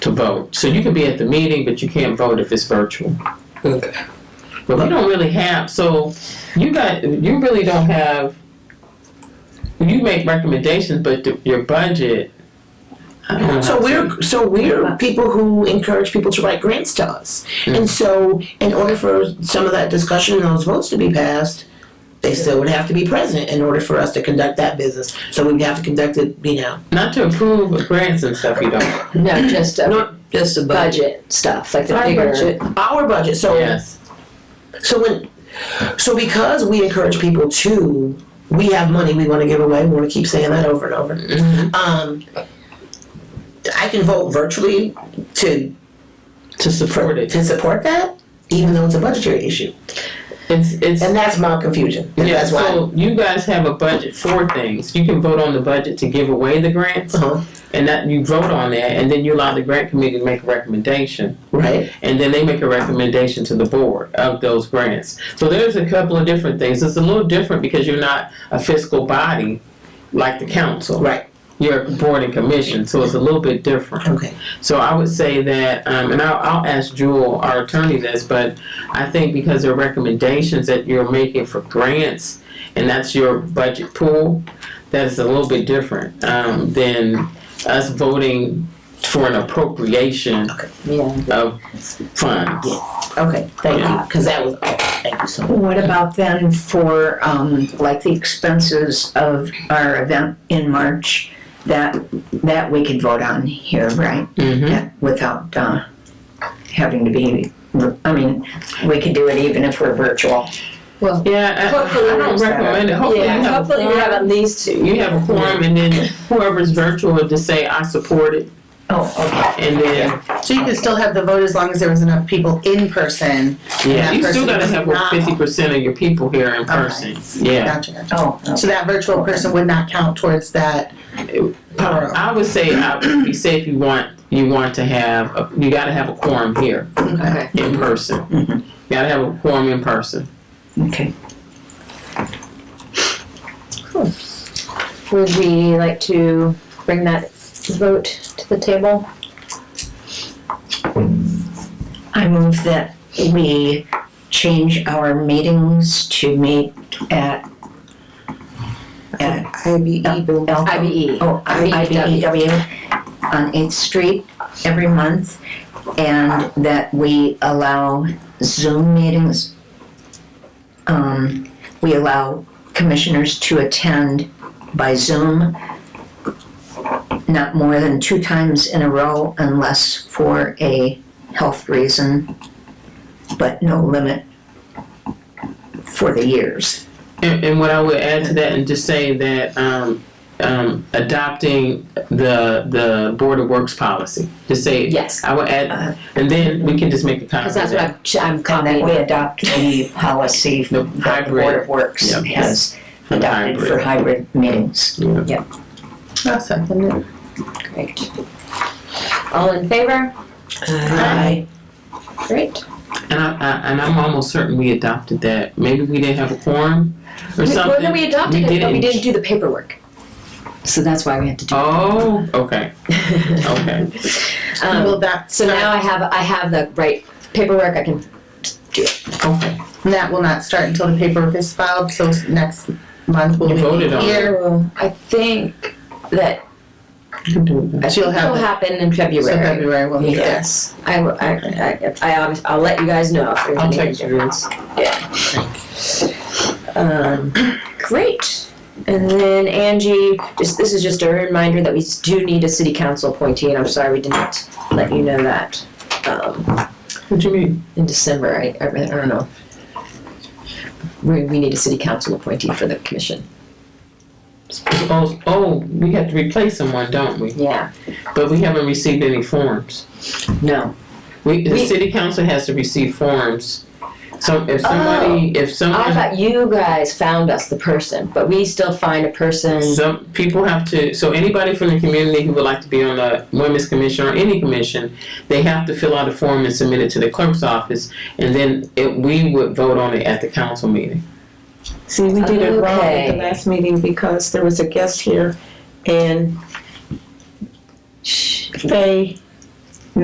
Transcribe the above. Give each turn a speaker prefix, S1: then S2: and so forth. S1: to vote. So you can be at the meeting, but you can't vote if it's virtual.
S2: Okay.
S1: But we don't really have, so you got, you really don't have, you make recommendations, but th- your budget. I don't know.
S3: So we're so we're people who encourage people to write grants to us, and so in order for some of that discussion and those votes to be passed, they still would have to be present in order for us to conduct that business. So we'd have to conduct it, you know.
S1: Not to approve of grants and stuff, you don't.
S4: No, just a
S2: Just a budget.
S4: budget stuff, like the
S3: Our
S4: bigger.
S3: budget. Our budget. So
S1: Yes.
S3: so when so because we encourage people to, we have money we want to give away. We want to keep saying that over and over. Um, I can vote virtually to
S1: To support it.
S3: to support that, even though it's a budgetary issue.
S1: It's, it's.
S3: And that's my confusion. And
S1: Yeah,
S3: that's why.
S1: so you guys have a budget for things. You can vote on the budget to give away the grants,
S3: Uh-huh.
S1: and that you vote on that, and then you allow the grant committee to make a recommendation,
S3: Right.
S1: and then they make a recommendation to the board of those grants. So there's a couple of different things. It's a little different because you're not a fiscal body like the council.
S3: Right.
S1: You're a board and commission, so it's a little bit different.
S3: Okay.
S1: So I would say that, um, and I'll, I'll ask Jewel, our attorney, this, but I think because there are recommendations that you're making for grants, and that's your budget pool, that is a little bit different, um, than us voting for an appropriation
S4: Yeah.
S1: of funds.
S3: Okay. Thank you. Because that was. Oh, thank you so much.
S5: What about then for, um, like the expenses of our event in March? That, that we could vote on here, right?
S1: Mm-hmm.
S5: Yeah, Without, uh, having to be, I mean, we could do it even if we're virtual.
S1: Yeah, I, I don't recommend it, hopefully you
S4: Yeah,
S1: have a
S4: hopefully we have
S1: quorum,
S4: at least two.
S1: you have a quorum, and then whoever's virtual would just say, I support it,
S5: Oh, okay.
S1: and then,
S6: So you could still have the vote as long as there was enough people in person. Yeah,
S1: yeah, you
S6: person
S1: still gotta have
S6: does not-
S1: fifty percent of your people here in person, yeah.
S6: Gotcha, gotcha.
S5: Oh,
S6: So that virtual person would not count towards that power.
S1: I would say, I would be say if you want, you want to have, a- you gotta have a quorum here
S6: Okay.
S1: in person.
S5: Mhm.
S1: Gotta have a quorum in person.
S5: okay.
S4: Would we like to bring that vote to the table?
S5: I move that we change our meetings to meet at, at
S6: IBE.
S5: Elko-
S4: IBE.
S5: Oh, IBEW on Eighth Street every month, and that we allow Zoom meetings. Um, we allow commissioners to attend by Zoom not more than two times in a row unless for a health reason, but no limit for the years.
S1: And, and what I would add to that and just say that, um, um, adopting the, the Board of Works policy, just say,
S4: Yes,
S1: I would add, and then we can just make a copy
S4: because
S1: of
S4: that's
S1: that.
S4: what I'm, I'm
S5: And that
S4: copying.
S5: we adopt the policy
S1: The
S5: that the Board
S1: hybrid.
S5: of Works
S1: Yep.
S5: has
S1: for the
S5: adopted for
S1: hybrid.
S5: hybrid meetings.
S6: I'll second it.
S4: Great. All in favor?
S3: Aye.
S4: Great.
S1: And I, I, and I'm almost certain we adopted that. Maybe we didn't have a quorum or
S4: We- Well,
S1: something.
S4: no, we adopted
S1: We
S4: it, but we
S1: didn't.
S4: didn't do the paperwork. So that's why we had to do
S1: Oh, okay,
S4: it.
S1: okay.
S4: Um,
S6: Will that,
S4: So now I have, I have the right paperwork, I can,
S1: Okay.
S6: that will not start until the paperwork is filed, so next month we'll
S1: You
S6: be
S1: voted on it.
S6: here.
S4: I think that
S1: You can do it.
S6: She'll
S4: will
S6: have it.
S4: happen in
S6: So
S4: February.
S6: February will be there.
S4: Yes, I, will- I, I, I, obvi- I'll let you guys know if there's
S1: I'll
S4: any
S1: text you.
S4: difference. Yeah. Um, great, and then Angie, just, this is just a reminder that we do need a city council appointee, and I'm sorry we didn't let you know that, um,
S1: What you mean?
S4: in December, I, I really- I don't know. We, we need a city council appointee for the commission,
S1: Oh, oh, we have to replace someone, don't we?
S4: yeah,
S1: But we haven't received any forms.
S4: no.
S1: We, the
S4: We-
S1: city council has to receive forms. So if somebody, if
S4: I
S1: someone,
S4: thought you guys found us the person, but we still find a person.
S1: some people have to, so anybody from the community who would like to be on the women's commission or any commission, they have to fill out a form and submit it to the clerk's office, and then it, we would vote on it at the council meeting.
S7: See, we did it wrong at
S4: Okay.
S7: the last meeting because there was a guest here and
S4: Shh.
S7: Faye